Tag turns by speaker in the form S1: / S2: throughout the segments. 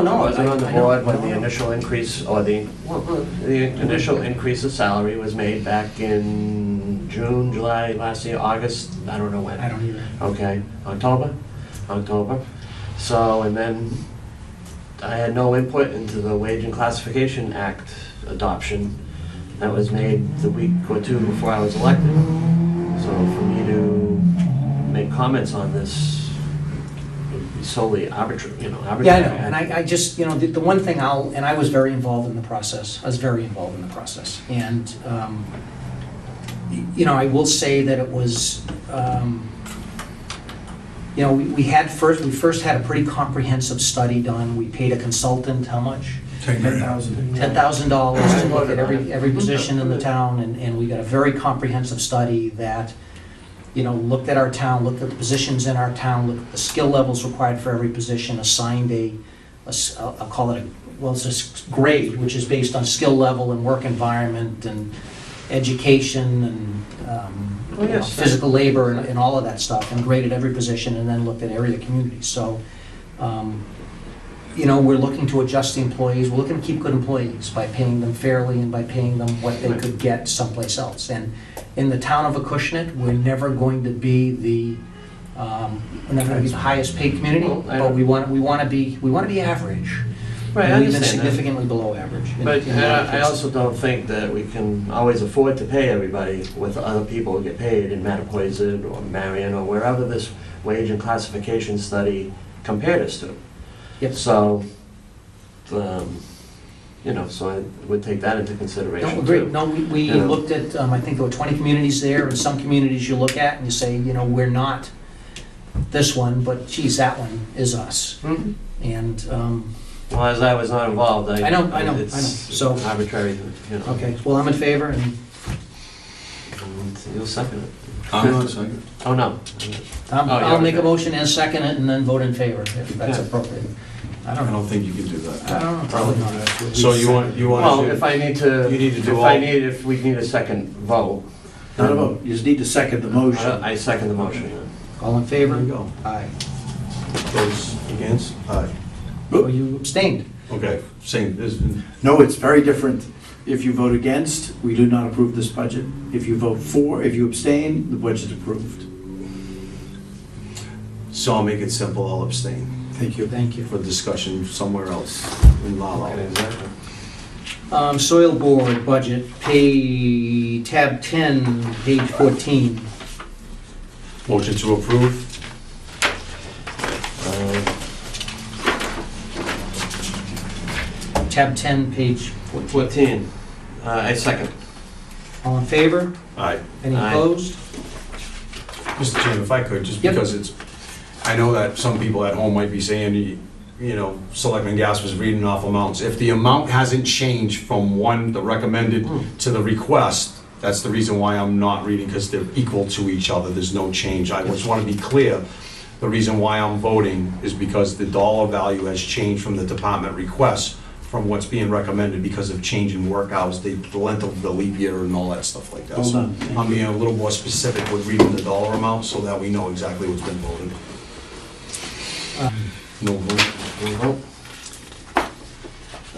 S1: No, Oh, no.
S2: I wasn't on the
S1: I- I know.
S2: board when the initial increase, or the, the initial increase of salary was made back in June, July, last year, August, I don't know when.
S1: I don't either.
S2: Okay, October, October. So, and then I had no input into the Wage and Classification Act adoption that was made the week or two before I was elected. So for me to make comments on this would be solely arbitrary, you know,
S1: Yeah, I
S2: arbitrary.
S1: know, and I, I just, you know, the, the one thing I'll, and I was very involved in the process, I was very involved in the process, and, um, y- you know, I will say that it was, um, you know, we, we had first, we first had a pretty comprehensive study done, we paid a consultant, how much?
S3: Ten thousand.
S1: ten thousand dollars to look at
S2: Mhm.
S1: every, every position in the town, and, and we got a very comprehensive study that, you know, looked at our town, looked at the positions in our town, looked at the skill levels required for every position, assigned a, a s- I'll I'll call it a, well, it's a s- grade, which is based on skill level and work environment and education and, um,
S2: Oh,
S1: you know,
S2: yes, sure.
S1: physical labor and, and all of that stuff, and graded every position, and then looked at area communities, so, um, you know, we're looking to adjust the employees, we're looking to keep good employees by paying them fairly and by paying them what they could get someplace else. And in the town of Acushnet, we're never going to be the, um, we're never going to be the highest paid community,
S2: Well, I-
S1: but we want, we want to be, we want to be average.
S2: Right, I
S1: And We've been
S2: understand that.
S1: significantly below average. in-
S2: But
S1: in a lot of
S2: uh, I
S1: cases.
S2: also don't think that we can always afford to pay everybody with other people who get paid in Mattapoisett or Marion or wherever this wage and classification study compared us to.
S1: Yep.
S2: So, um, you know, so I would take that into consideration
S1: No,
S2: too.
S1: agree, no, we, we
S2: Yeah.
S1: looked at, um, I think there were twenty communities there, and some communities you look at and you say, you know, we're not this one, but geez, that one is us.
S2: Mhm.
S1: And, um,
S2: Well, as I was not involved, I...
S1: Mm-hmm. I know, I know, I know.
S2: It's
S1: So-
S2: arbitrary, you know.
S1: Okay, well, I'm in favor, and
S2: And You'll second it.
S3: I'm not second.
S2: Oh, no.
S1: Tom,
S2: Oh, yeah,
S1: I'll make a
S2: okay.
S1: motion and second it, and then vote in favor, if that's
S2: Yeah.
S1: appropriate. I
S3: I
S1: don't know.
S3: don't think you can do that.
S1: I don't know, probably not.
S3: So you want, you
S2: Well,
S3: want
S2: if
S3: to
S2: I need to...
S3: You need to do
S2: If I
S3: all-
S2: need, if we need a second vote, Uh,
S4: Not a vote, you just need to second the motion.
S2: I I second the motion. yeah.
S1: All in
S3: There you
S1: favor?
S3: go.
S1: Aye.
S3: Those against? Aye.
S1: Oh, you abstained.
S3: Okay, same, this,
S4: No, it's very different. If you vote against, we do not approve this budget. If you vote for, if you abstain, the budget's approved.
S3: so I'll make it simple, I'll abstain
S4: Thank you.
S1: Thank you.
S3: for discussion somewhere else in La La.
S2: Okay, exactly.
S1: Um, Soil Board budget, pay, tab 10, page 14.
S3: Motion to approve?
S2: Uh,
S1: Tab 10, page 14.
S2: 14, Uh, I second.
S1: All in favor?
S3: Aye.
S1: Any
S2: Aye.
S1: opposed?
S3: Mr. Chairman, if I could, just
S1: Yep.
S3: because it's, I know that some people at home might be saying, you- you know, Selectman Gas was reading off amounts. If the amount hasn't changed from one, the recommended, to the request, that's the reason why I'm not reading, because they're equal to each other, there's no change. I just want to be clear, the reason why I'm voting is because the dollar value has changed from the department request from what's being recommended because of change in work hours, the the length of the leap year and all that stuff like that.
S4: Well
S3: So
S4: done. Thank
S3: I'm being a little more specific with reading the dollar amount so that we know exactly what's been voted. No vote.
S2: We'll vote.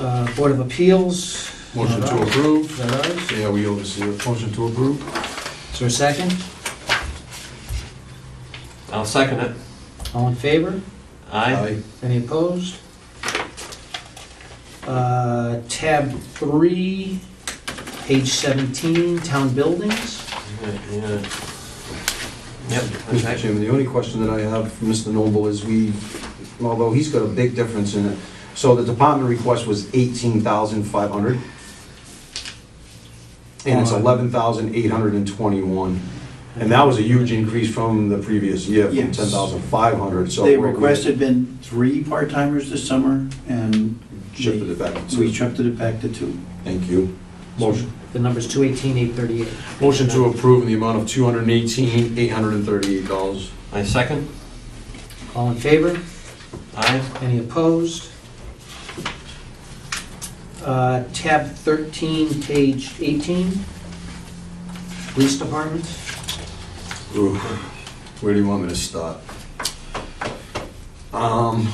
S1: Uh, Board of Appeals?
S3: Motion
S1: Not
S3: to
S1: ours. Is
S3: approve.
S1: that ours?
S3: Yeah, we oversee it. Motion to approve.
S1: Is there a second?
S2: I'll second it.
S1: All in favor?
S2: Aye.
S1: Any opposed? Uh, Tab 3, page 17, town buildings.
S2: Yeah, yeah. Yep.
S3: Mr.
S2: okay.
S3: Chairman, the only question that I have for Mr. Noble is we, although he's got a big difference in it, so the department request was eighteen thousand five hundred, and it's
S4: On-
S3: eleven thousand eight hundred and twenty-one. And that was a huge increase from the previous year, from
S4: Yes.
S3: ten thousand five hundred, so.
S4: They
S3: what we-
S4: requested been three part-timers this summer, and
S3: Shifted it back to-
S4: we shifted it back to two.
S3: Thank you. Motion,
S1: The number's 218, 838.
S3: motion to approve in the amount of two hundred and eighteen, eight hundred and thirty-eight dollars.
S2: I second.
S1: All in favor?
S2: Aye.
S1: Any opposed? Uh, Tab 13, page 18, police department.
S3: Ooh, Where do you want me to start? Um,